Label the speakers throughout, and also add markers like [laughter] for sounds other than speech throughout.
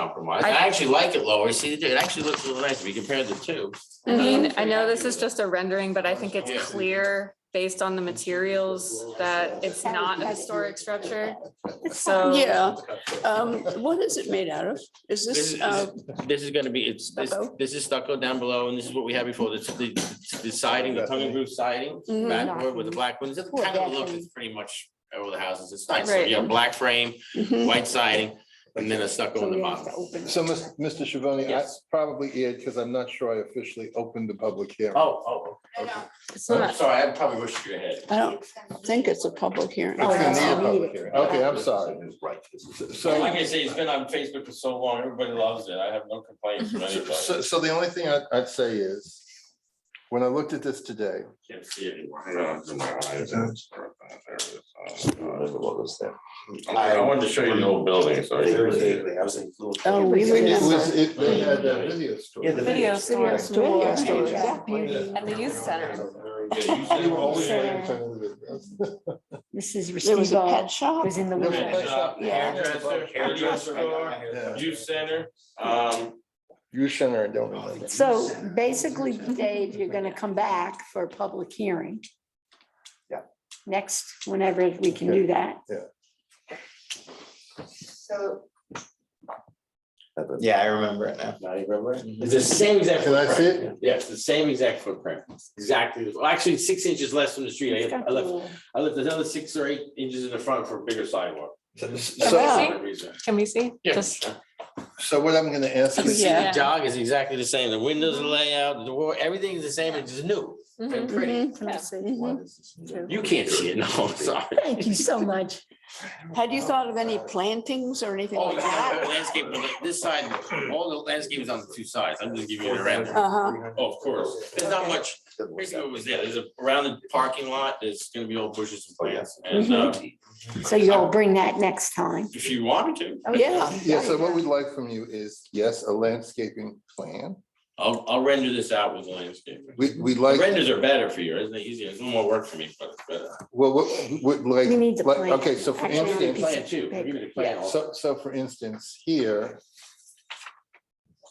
Speaker 1: compromise. I actually like it lower. See, it actually looks a little nice if you compare the two.
Speaker 2: I mean, I know
Speaker 1: Pretty
Speaker 2: this is
Speaker 1: happy with
Speaker 2: just a rendering, but I think it's
Speaker 1: Yeah.
Speaker 2: clear based on the materials that it's not a historic structure. So.
Speaker 3: [laughs] Yeah, um, what is it made out of?
Speaker 1: This
Speaker 3: Is this,
Speaker 1: is-
Speaker 3: uh,
Speaker 1: This is gonna be, it's, this,
Speaker 3: Stucco?
Speaker 1: this is stucco down below, and this is what we had before, this, the, the siding, the tongue and groove siding.
Speaker 3: Mhm.
Speaker 1: Backboard with the black ones, it's
Speaker 4: Poor
Speaker 1: kind of
Speaker 4: deck
Speaker 1: look,
Speaker 4: and-
Speaker 1: it's pretty much over the houses, it's nice, so
Speaker 2: Right.
Speaker 1: you have black frame,
Speaker 3: mhm,
Speaker 1: white siding, and then a stucco
Speaker 4: So
Speaker 1: on the
Speaker 4: we have
Speaker 1: bottom. Oh,
Speaker 4: to open.
Speaker 5: So, Mis- Mr. Shavoni, I
Speaker 1: Yes.
Speaker 5: probably it, because I'm not sure I officially opened the public hearing.
Speaker 1: Oh,
Speaker 5: I know.
Speaker 3: it's
Speaker 1: oh, I'm
Speaker 3: not,
Speaker 1: sorry, I probably rushed you ahead.
Speaker 3: I don't think it's a public hearing. Um,
Speaker 5: It's gonna
Speaker 4: that's-
Speaker 5: need a public hearing. Okay, I'm sorry.
Speaker 1: So like
Speaker 5: So,
Speaker 1: I say, it's been on Facebook for so long, everybody loves it, I have no complaints [laughs] from anybody,
Speaker 5: so, so the only thing I'd, I'd say is, when I looked at this today,
Speaker 1: can't see it anymore. I I wanted to show you the old building, so.
Speaker 3: Oh, we
Speaker 5: it
Speaker 3: remember.
Speaker 5: was, it, they had that video store.
Speaker 6: Yeah, the
Speaker 2: Video
Speaker 3: store.
Speaker 4: Video store,
Speaker 3: Yeah.
Speaker 4: that beauty.
Speaker 2: And the youth center.
Speaker 4: This is
Speaker 3: There was
Speaker 4: Resteva
Speaker 3: a pet shop.
Speaker 4: was in the
Speaker 5: There was a
Speaker 4: wheelchair.
Speaker 5: pet shop,
Speaker 4: Yeah.
Speaker 1: Hairdresser, store, youth center, um,
Speaker 5: You center, I don't remember.
Speaker 4: So basically, Dave, you're gonna come back for a public hearing.
Speaker 5: Yeah.
Speaker 4: Next, whenever we can do that.
Speaker 7: So
Speaker 6: Yeah, I remember it now. Mhm.
Speaker 1: Now you remember it? It's the same exact.
Speaker 5: Can I see it?
Speaker 1: footprint. Yes, the same exact footprint, exactly, well, actually, six inches less from the street, I I left, I left another six or eight inches in the front for a bigger sidewalk.
Speaker 5: So,
Speaker 2: Wow.
Speaker 1: For that reason.
Speaker 2: Can we see? Just-
Speaker 5: so what I'm gonna ask
Speaker 1: You
Speaker 5: is,
Speaker 1: see the
Speaker 2: Yeah.
Speaker 1: dog is exactly the same, the windows are layout, the door, everything is the same, it's just new and
Speaker 2: Mhm.
Speaker 1: pretty.
Speaker 4: Mm-hmm.
Speaker 3: Mhm, mhm.
Speaker 1: You can't see it, no, I'm sorry.
Speaker 4: Thank you so much.
Speaker 3: Had you thought of any plantings or anything
Speaker 1: Oh,
Speaker 3: like
Speaker 1: yeah,
Speaker 3: that?
Speaker 1: landscape, on the- this side, all the landscape is on the two sides, I'm just giving you the random.
Speaker 3: Uh-huh,
Speaker 1: Oh, of course, there's not much, basically what was there, there's a, around the parking lot, there's gonna be old bushes and plants, and, uh,
Speaker 4: Mm-hmm. So you'll Oh, bring that next time.
Speaker 1: if you wanted to.
Speaker 3: yeah.
Speaker 5: yeah, so what we'd like from you is, yes, a landscaping plan.
Speaker 1: I'll, I'll render this out with landscaping.
Speaker 5: We, we'd
Speaker 1: The
Speaker 5: like,
Speaker 1: Renders are better for you, isn't it easier? It's a little more work for me, but it's better.
Speaker 5: well, what, would like.
Speaker 4: We need the
Speaker 5: like-
Speaker 4: plan.
Speaker 5: Okay, so for
Speaker 4: Actually, we
Speaker 5: instance.
Speaker 4: Piece of
Speaker 1: Plan too, give me the plan.
Speaker 5: So, so for instance, here.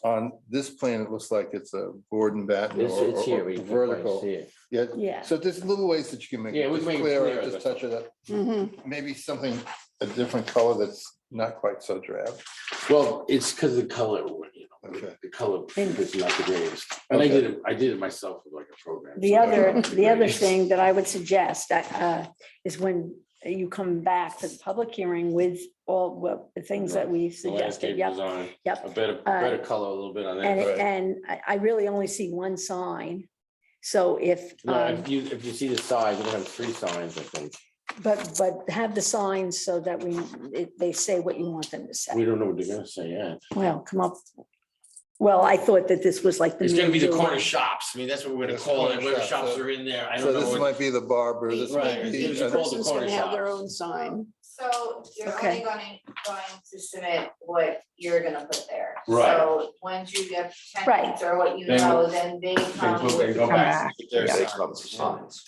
Speaker 5: On this plan, it looks like it's a board and batten or- or or vertical. Yeah,
Speaker 4: Yeah.
Speaker 5: so there's little ways that you can make
Speaker 1: Yeah,
Speaker 5: it
Speaker 1: we can
Speaker 5: just
Speaker 1: make it
Speaker 5: clearer,
Speaker 1: clearer,
Speaker 5: just
Speaker 1: that's
Speaker 5: touch it up.
Speaker 3: mhm.
Speaker 5: Maybe something, a different color that's not quite so drab.
Speaker 1: Well, it's because the color, you
Speaker 5: Okay.
Speaker 1: the color
Speaker 4: And-
Speaker 1: is not the greatest.
Speaker 5: And I Okay.
Speaker 1: it, I did it myself with like a program.
Speaker 4: The other,
Speaker 1: [laughs]
Speaker 4: the other thing that I would suggest uh, is when you come back to the public hearing with all what- the things that we suggested,
Speaker 1: Landscape
Speaker 4: yep.
Speaker 1: design.
Speaker 4: yep. Uh,
Speaker 1: A better, better color, a little bit on
Speaker 4: And,
Speaker 1: that.
Speaker 5: Right.
Speaker 4: and I, I really only see one sign. So if,
Speaker 1: No,
Speaker 4: um,
Speaker 1: if you, if you see the size, we're gonna have three signs, I think.
Speaker 4: but, but have the signs so that we, it- they say what you want them to
Speaker 1: We
Speaker 4: say.
Speaker 1: don't know what they're gonna say yet.
Speaker 4: Well, come up. Well, I thought that this was like.
Speaker 1: It's gonna be the
Speaker 4: main
Speaker 1: corner shops. I mean, that's what we're gonna
Speaker 5: Yes,
Speaker 1: call it.
Speaker 5: corner
Speaker 1: Where
Speaker 5: shops,
Speaker 1: shops
Speaker 5: so-
Speaker 1: are in there. I
Speaker 5: So
Speaker 1: don't know.
Speaker 5: this
Speaker 1: what-
Speaker 5: might be the barber, this
Speaker 1: Right,
Speaker 5: might be.
Speaker 1: it's called the
Speaker 3: Person's gonna
Speaker 1: corner
Speaker 3: have their
Speaker 1: shop.
Speaker 3: own sign.
Speaker 7: so you're only
Speaker 4: Okay.
Speaker 7: going, going to submit what you're gonna put there.
Speaker 1: Right.
Speaker 7: So once you get tenants
Speaker 4: Right.
Speaker 7: or what you
Speaker 1: Then
Speaker 7: know, then they come
Speaker 1: put- they
Speaker 7: with
Speaker 1: go back.
Speaker 4: door.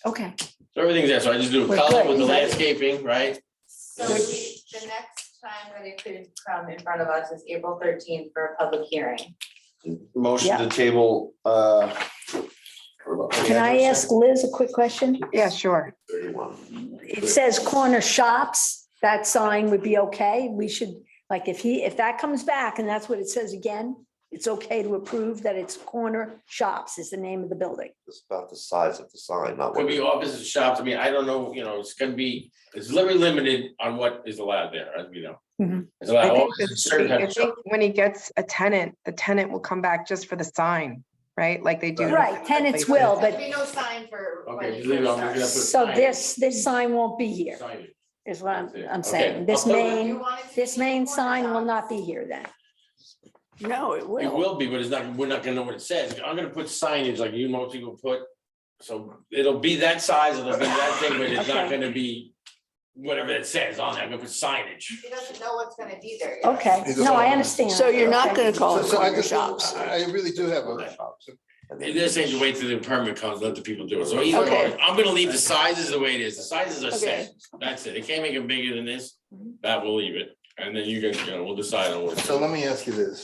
Speaker 4: Okay.
Speaker 1: So everything's there. So I just do a
Speaker 4: We're
Speaker 1: color
Speaker 4: good.
Speaker 1: with the
Speaker 4: Is that-
Speaker 1: landscaping, right?
Speaker 7: So we, the next time that it could come in front of us is April thirteenth for a public hearing.
Speaker 6: Motion
Speaker 4: Yeah.
Speaker 6: to table, uh.
Speaker 4: Can I ask Liz a quick question?
Speaker 8: Yeah, sure.
Speaker 4: It says corner shops, that sign would be okay. We should, like, if he, if that comes back and that's what it says again, it's okay to approve that it's corner shops is the name of the building.
Speaker 6: It's about the size of the sign, not
Speaker 1: Could
Speaker 6: what.
Speaker 1: be offices and shops. I mean, I don't know, you know, it's gonna be, it's very limited on what is allowed there, as we know.
Speaker 4: Mhm.
Speaker 1: It's
Speaker 8: I
Speaker 1: allowed
Speaker 8: think
Speaker 1: offices,
Speaker 8: that-
Speaker 1: certain
Speaker 8: I
Speaker 1: type of shop.
Speaker 8: think When he gets a tenant, the tenant will come back just for the sign, right? Like they do.
Speaker 4: Right, tenants will,
Speaker 7: There'll
Speaker 4: but,
Speaker 7: be no sign for. when
Speaker 1: Okay,
Speaker 7: it
Speaker 1: just leave it on,
Speaker 7: starts.
Speaker 1: leave it up.
Speaker 4: so this, this sign won't be here,
Speaker 1: Signage.
Speaker 4: is what I'm, I'm
Speaker 1: Okay.
Speaker 4: saying. This
Speaker 1: So you
Speaker 7: So you
Speaker 4: main,
Speaker 7: want it to
Speaker 4: this
Speaker 7: be
Speaker 4: main
Speaker 7: corner
Speaker 4: sign will
Speaker 7: shops.
Speaker 4: not be here then.
Speaker 3: No, it
Speaker 1: It
Speaker 3: will.
Speaker 1: will be, but it's not, we're not gonna know what it says. I'm gonna put signage like you most people put. So it'll be that size, it'll be that thing, but it's not
Speaker 4: Okay.
Speaker 1: gonna be whatever it says on there. I'm gonna put signage.
Speaker 7: He doesn't know what's gonna be there yet.
Speaker 4: Okay, no, I understand.
Speaker 3: So you're not
Speaker 4: Okay.
Speaker 3: gonna call
Speaker 5: So
Speaker 3: it
Speaker 5: so I
Speaker 3: corner
Speaker 5: just,
Speaker 3: shops.
Speaker 5: I I really do have a,
Speaker 1: It is saying to wait till the permit comes, let the people do it. So either,
Speaker 3: Okay.
Speaker 1: way, I'm gonna leave the sizes the way it is. The sizes are
Speaker 3: Okay. Mm-hmm.
Speaker 1: set. That's it. They can't make it bigger than this. That will leave it.
Speaker 9: and then you guys, you know, we'll decide on what.
Speaker 1: So let me ask you this.